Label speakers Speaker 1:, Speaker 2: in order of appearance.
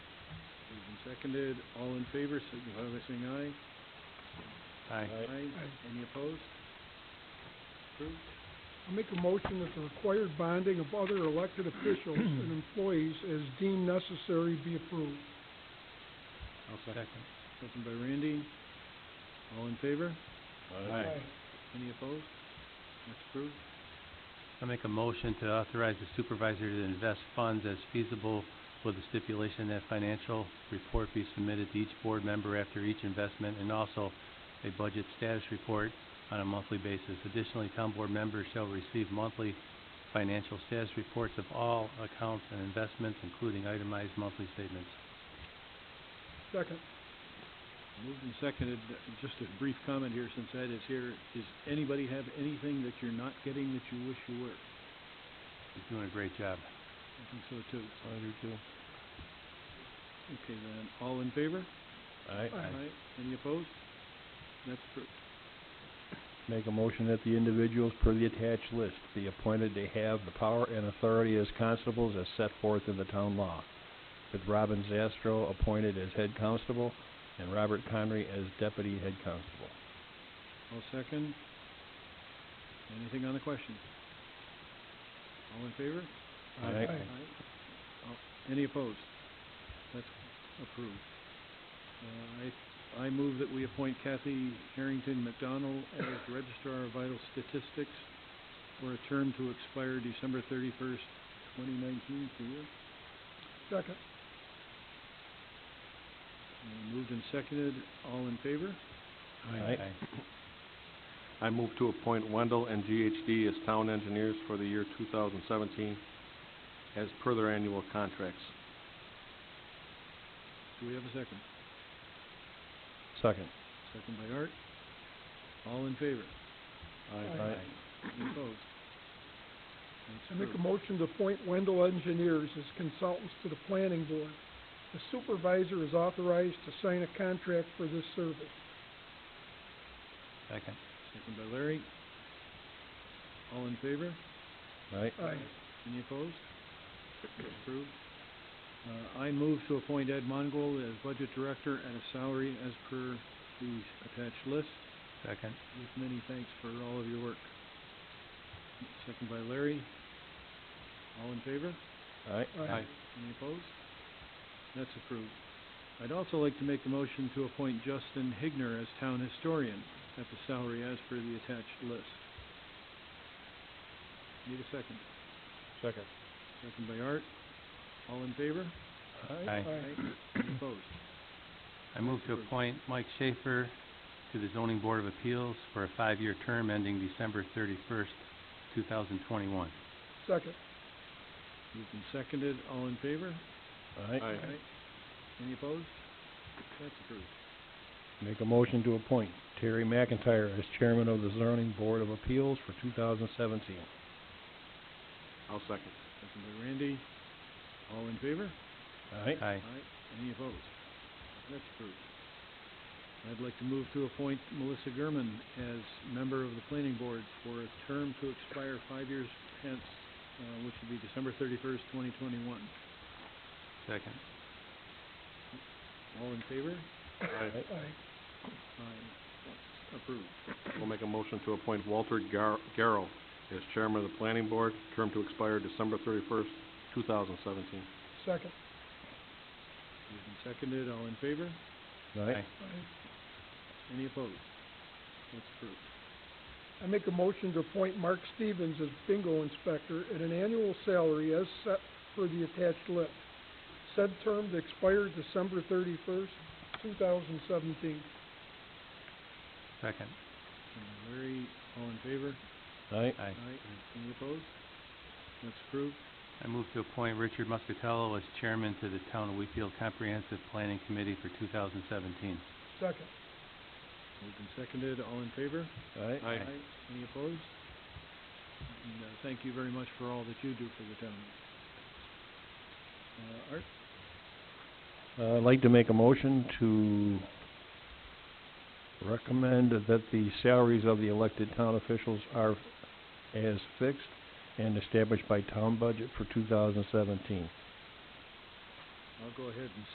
Speaker 1: seconded. All in favor, signify by saying aye.
Speaker 2: Aye.
Speaker 1: Any opposed? Approved.
Speaker 3: I'll make a motion that the required bonding of other elected officials and employees as deemed necessary be approved.
Speaker 2: I'll second.
Speaker 1: Second by Randy. All in favor?
Speaker 2: Aye.
Speaker 1: Any opposed? That's approved.
Speaker 2: I make a motion to authorize the supervisor to invest funds as feasible with the stipulation that financial report be submitted to each board member after each investment and also a budget status report on a monthly basis. Additionally, town board members shall receive monthly financial status reports of all accounts and investments, including itemized monthly statements.
Speaker 3: Second.
Speaker 1: Moved and seconded. Just a brief comment here since Ed is here. Does anybody have anything that you're not getting that you wish you were?
Speaker 2: You're doing a great job.
Speaker 1: I think so too. I do too. Okay then, all in favor?
Speaker 4: Aye.
Speaker 3: Aye.
Speaker 1: Any opposed? That's approved.
Speaker 4: Make a motion that the individuals per the attached list be appointed to have the power and authority as constables as set forth in the town law, with Robin Zastro appointed as head constable and Robert Conry as deputy head constable.
Speaker 1: I'll second. Anything on the question? All in favor?
Speaker 4: Aye.
Speaker 3: Aye.
Speaker 1: Oh, Any opposed? That's approved. Uh, I, I move that we appoint Kathy Harrington McDonald as Registrar of Vital Statistics for a term to expire December thirty-first, twenty nineteen, for you.
Speaker 3: Second.
Speaker 1: Uh, Moved and seconded, all in favor?
Speaker 4: Aye.
Speaker 5: I move to appoint Wendell and GHD as town engineers for the year two thousand seventeen as per their annual contracts.
Speaker 1: Do we have a second?
Speaker 4: Second.
Speaker 1: Second by Art. All in favor?
Speaker 3: Aye.
Speaker 4: Aye.
Speaker 1: Any opposed?
Speaker 3: I
Speaker 1: That's
Speaker 3: make a
Speaker 1: approved.
Speaker 3: motion to appoint Wendell Engineers as consultants to the planning board. The supervisor is authorized to sign a contract for this service.
Speaker 2: Second.
Speaker 1: Second by Larry. All in favor?
Speaker 4: Aye.
Speaker 3: Aye.
Speaker 1: Any opposed? Approved. Uh, I move to appoint Ed Mongol as Budget Director at a salary as per the attached list,
Speaker 2: Second.
Speaker 1: with many thanks for all of your work. Second by Larry. All in favor?
Speaker 4: Aye.
Speaker 3: Aye.
Speaker 1: Any opposed? That's approved. I'd also like to make a motion to appoint Justin Higner as town historian at the salary as per the attached list. Need a second.
Speaker 4: Second.
Speaker 1: Second by Art. All in favor?
Speaker 2: Aye.
Speaker 1: Any opposed?
Speaker 2: I move to
Speaker 1: Approved.
Speaker 2: appoint Mike Schaefer to the zoning board of appeals for a five-year term ending December thirty-first, two thousand twenty-one.
Speaker 3: Second.
Speaker 1: Moved and seconded. All in favor?
Speaker 4: Aye.
Speaker 1: Any opposed? That's approved.
Speaker 4: Make a motion to appoint Terry McIntyre as chairman of the zoning board of appeals for two thousand seventeen.
Speaker 5: I'll second.
Speaker 1: Second by Randy. All in favor?
Speaker 4: Aye.
Speaker 2: Aye.
Speaker 1: Any opposed? That's approved. I'd like to move to appoint Melissa Gurman as member of the planning board for a term to expire five years hence, uh, which would be December thirty-first, twenty twenty-one.
Speaker 2: Second.
Speaker 1: All in favor?
Speaker 5: Aye.
Speaker 3: Aye.
Speaker 1: Aye. Approved.
Speaker 5: We'll make a motion to appoint Walter Gar- Garrow as chairman of the planning board, term to expire December thirty-first, two thousand seventeen.
Speaker 3: Second.
Speaker 1: Moved and seconded, all in favor?
Speaker 4: Aye.
Speaker 3: Aye.
Speaker 1: Any opposed? That's approved.
Speaker 3: I make a motion to appoint Mark Stevens as bingo inspector at an annual salary as set for the attached list. Said term to expire December thirty-first, two thousand seventeen.
Speaker 2: Second.
Speaker 1: And Larry, all in favor?
Speaker 4: Aye.
Speaker 2: Aye.
Speaker 1: Any opposed? That's approved.
Speaker 2: I move to appoint Richard Muscatello as chairman to the town of Wheatfield Comprehensive Planning Committee for two thousand seventeen.
Speaker 3: Second.
Speaker 1: Moved and seconded, all in favor?
Speaker 4: Aye.
Speaker 5: Aye.
Speaker 1: Any opposed? And, uh, thank you very much for all that you do for the town. Uh, Art,
Speaker 4: Uh, I'd like to make a motion to recommend that the salaries of the elected town officials are as fixed and established by town budget for two thousand seventeen.
Speaker 1: I'll go ahead and